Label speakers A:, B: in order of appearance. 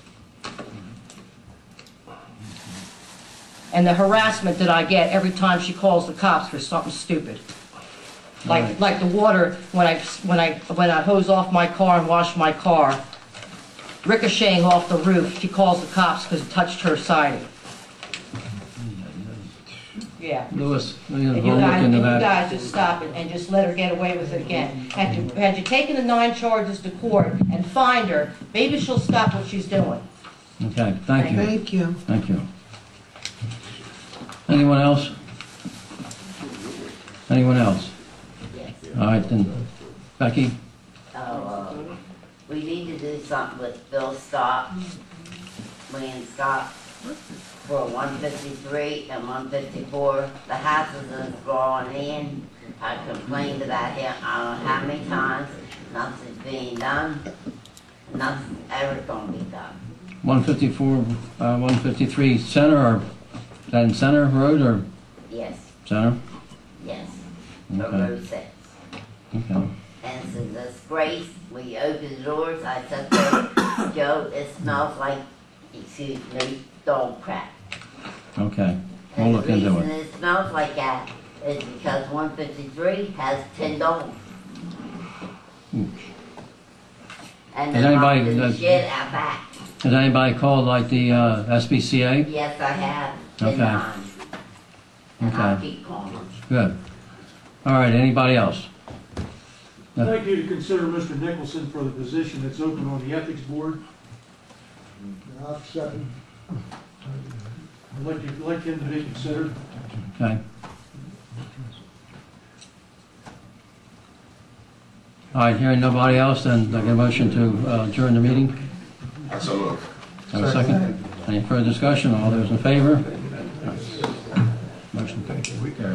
A: and the harassment that I get every time she calls the cops for something stupid. Like, like the water, when I, when I, when I hose off my car and wash my car, ricocheting off the roof, she calls the cops because it touched her siding. Yeah.
B: Louis, we
A: And
B: have to
A: you
B: look
A: guys, and
B: into
A: you
B: that.
A: guys just stop it and just let her get away with it again. Had you, had you taken the nine charges to court and fined her, maybe she'll stop what she's doing.
B: Okay, thank you,
C: Thank you.
B: thank you. Anyone else? Anyone else? All right, then, Becky,
D: Oh, uh, we need to do something with Bill Scott, Wayne Scott, for one fifty-three and one fifty-four. The houses is going in. I complained about it, I don't know how many times, nothing's being done. Nothing's ever gonna be done.
B: 154, uh, 153 Center, or, is that in Center Road or
D: Yes,
B: Center?
D: yes, the
B: Okay,
D: road sets.
B: okay.
D: And it's a disgrace, we opened the doors, I said, "Well, Joe, it smells like, excuse me, dog crap.
B: Okay, we'll
D: And
B: look
D: the
B: into
D: reason
B: it.
D: it smells like that is because one fifty-three has ten dogs. And
B: Has
D: they
B: anybody-
D: knocked the
B: does-
D: shit out back.
B: Has anybody called like the uh, SBCA?
D: Yes, I have,
B: Okay.
D: ten times. And I'll
B: Okay.
D: keep calling them.
B: Good. All right, anybody else?
E: I'd like you to consider Mr. Nicholson for the position that's open on the Ethics Board.
F: I'll second.
E: I'd like, you- I'd like him to be considered.
B: Okay. All right, hearing nobody else, then I get a motion to uh, adjourn the meeting.
G: So look.
B: Have a second? Any further discussion? All those in favor? Motion carries.